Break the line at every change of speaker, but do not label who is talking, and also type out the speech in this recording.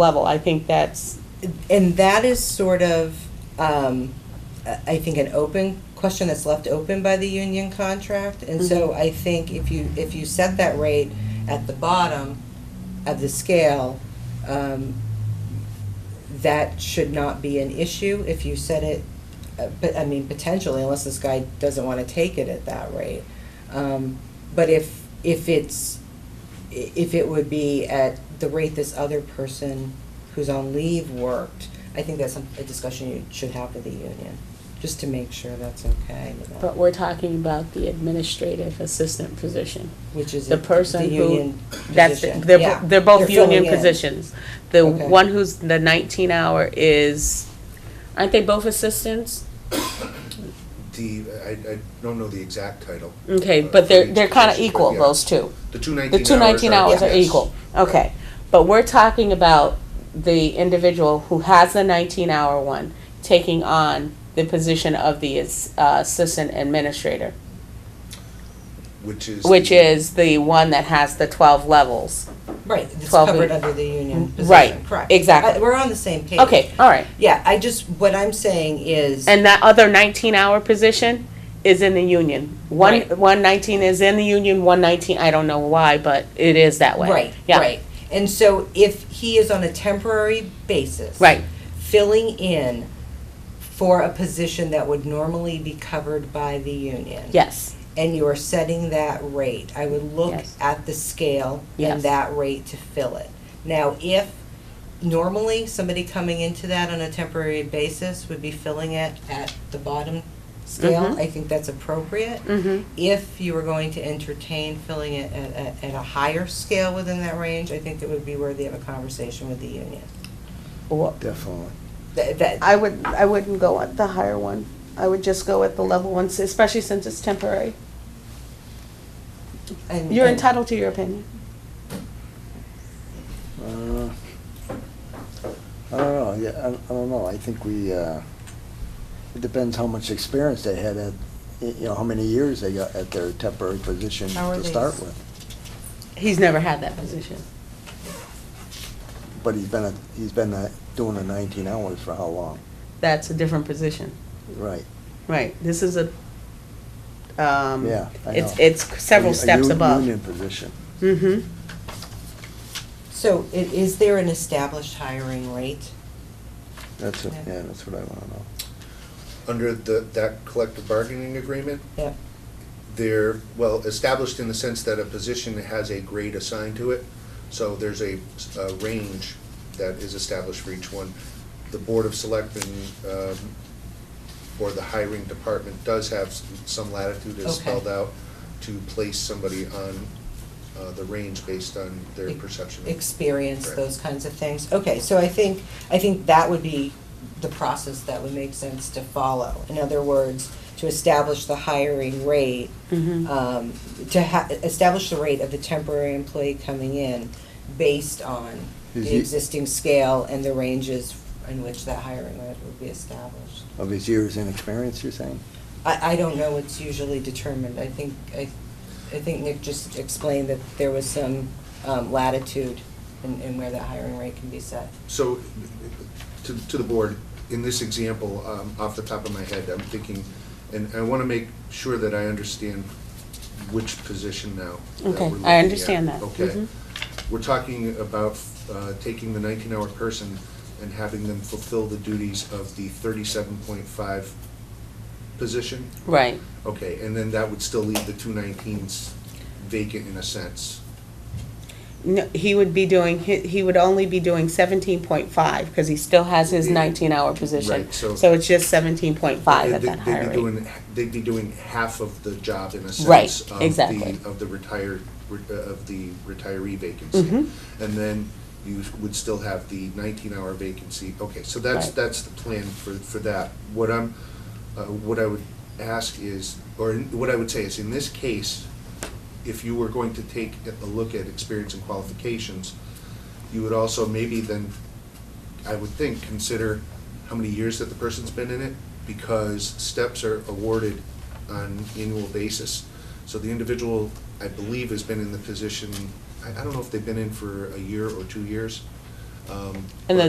level. I think that's,
And that is sort of, um, I I think, an open question that's left open by the union contract. And so I think if you, if you set that rate at the bottom of the scale, um, that should not be an issue if you set it, uh, but, I mean, potentially, unless this guy doesn't want to take it at that rate. Um, But if, if it's, i- if it would be at the rate this other person who's on leave worked, I think that's some- a discussion you should have with the union, just to make sure that's okay with them.
but we're talking about the administrative assistant position.
Which is
the
a-
person
the
who-
union
That's,
position.
they're,
Yeah.
bo- they're both
filling
union
in.
positions. The
Okay.
one who's the nineteen hour is, aren't they both assistants?
The, I, I don't know the exact title.
Okay,
uh,
but
for
they're,
each
they're kind of
position, but
equal,
yeah.
those two.
The two
The
nineteen hours.
two nineteen hours are
yes.
equal, okay. But we're talking about the individual who has the nineteen hour one taking on the position of the as- uh, assistant administrator,
Which is.
which
the-
is the one that has the twelve levels.
Right, it's
12
covered
week-
under the union position.
Right,
correct.
exactly.
I- We're on the same page.
Okay, all right.
Yeah, I just, what I'm saying is,
And that other nineteen hour position is in the union. One,
Right.
one nineteen is in the union, one nineteen, I don't know why, but it is that way.
right,
Yeah.
right. And so if he is on a temporary basis.
Right,
filling in for a position that would normally be covered by the union.
yes,
And you are setting that rate. I would look
Yes.
at the scale
Yes.
and that rate to fill it. Now, if normally somebody coming into that on a temporary basis would be filling it at the bottom scale,
Mhm.
I think that's appropriate.
mm-hmm,
If you were going to entertain filling it at, at, at a higher scale within that range, I think it would be worthy of a conversation with the union.
Definitely.
That, that,
I would, I wouldn't go at the higher one. I would just go at the level ones, especially since it's temporary.
and-
You're
and-
entitled to your opinion.
Uh, I don't know, yeah, I I don't know, I think we, uh, it depends how much experience they had at, y- you know, how many years they got at their temporary position
How are
to
they-
start with.
He's never had that position.
But he's been, a- he's been uh, doing the 19 hours for how long?
That's a different position.
Right.
Right, this is a, um,
Yeah, I
it's,
know.
it's several
A- a
steps
u-
above.
Union position.
Mm-hmm.
So i- is there an established hiring rate?
That's, what-
Yeah.
yeah, that's what I want to know.
Under the, that collective bargaining agreement,
Yep.
they're, well, established in the sense that a position has a grade assigned to it. So there's a, a range that is established for each one. The Board of Selectmen, um, or the hiring department does have s- some latitude as
Okay.
spelled out to place somebody on, uh, the range based on their
Ex-
perception. of-
Experience,
Correct.
those kinds of things? Okay, so I think, I think that would be the process that would make sense to follow. In other words, to establish the hiring rate,
Mm-hmm.
um, to ha- establish the rate of the temporary employee coming in based on
Is
the
he-
existing scale and the ranges in which that hiring rate would be established.
Of his years in experience, you're saying?
I, I don't know what's usually determined. I think, I, I think Nick just explained that there was some um, latitude in, in where that hiring rate can be set.
So, to, to the board, in this example, um, off the top of my head, I'm thinking, and I want to make sure that I understand which position now. that
Okay,
we're
I
looking at.
understand that.
Okay.
Mhm.
We're talking about uh, taking the 19-hour person and having them fulfill the duties of the 37.5 position?
Right,
Okay, and then that would still leave the two 19s vacant in a sense.
no, he would be doing, he, he would only be doing seventeen point five, because he still has his
Yeah.
nineteen hour position.
Right, so-
So it's just seventeen point five
Yeah,
at
they-
that
they'd be
higher rate.
doing- They'd be doing half of the job in a sense.
Right,
of the-
exactly.
Of the retired, re- uh, of the retiree
Mhm.
vacancy. And then you would still have the nineteen-hour vacancy. Okay, so that's,
Right.
that's the plan for, for that. What I'm, uh, what I would ask is, or in- what I would say is, in this case, if you were going to take a look at experience and qualifications, you would also maybe then, I would think, consider how many years that the person's been in it, because steps are awarded on annual basis. So the individual, I believe, has been in the position, I, I don't know if they've been in for a year or two years.
Um,
And the